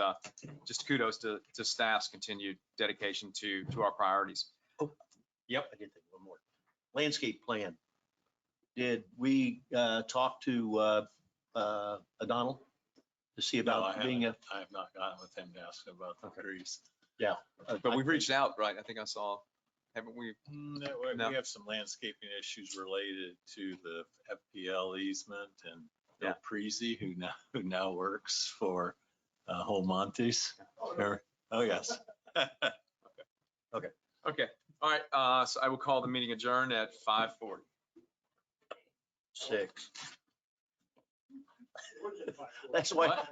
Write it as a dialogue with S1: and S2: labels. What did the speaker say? S1: uh, just kudos to, to staff's continued dedication to, to our priorities.
S2: Yep, I did think of one more. Landscape plan. Did we uh, talk to uh, uh, O'Donnell to see
S3: No, I
S2: about being a?
S3: I have not gotten with him to ask about the trees.
S1: But we've reached out, right? I think I saw, haven't we?
S3: No, Mm, we-
S1: No.
S3: we have some landscaping issues related to the FPL easement and
S1: Yeah.
S3: Bill Prezi, who now, who now works for uh, Whole Montes. Or- Oh, yes.
S1: Okay, all right, uh, so I will call the meeting adjourned at five forty.
S2: Six. That's why,
S1: What?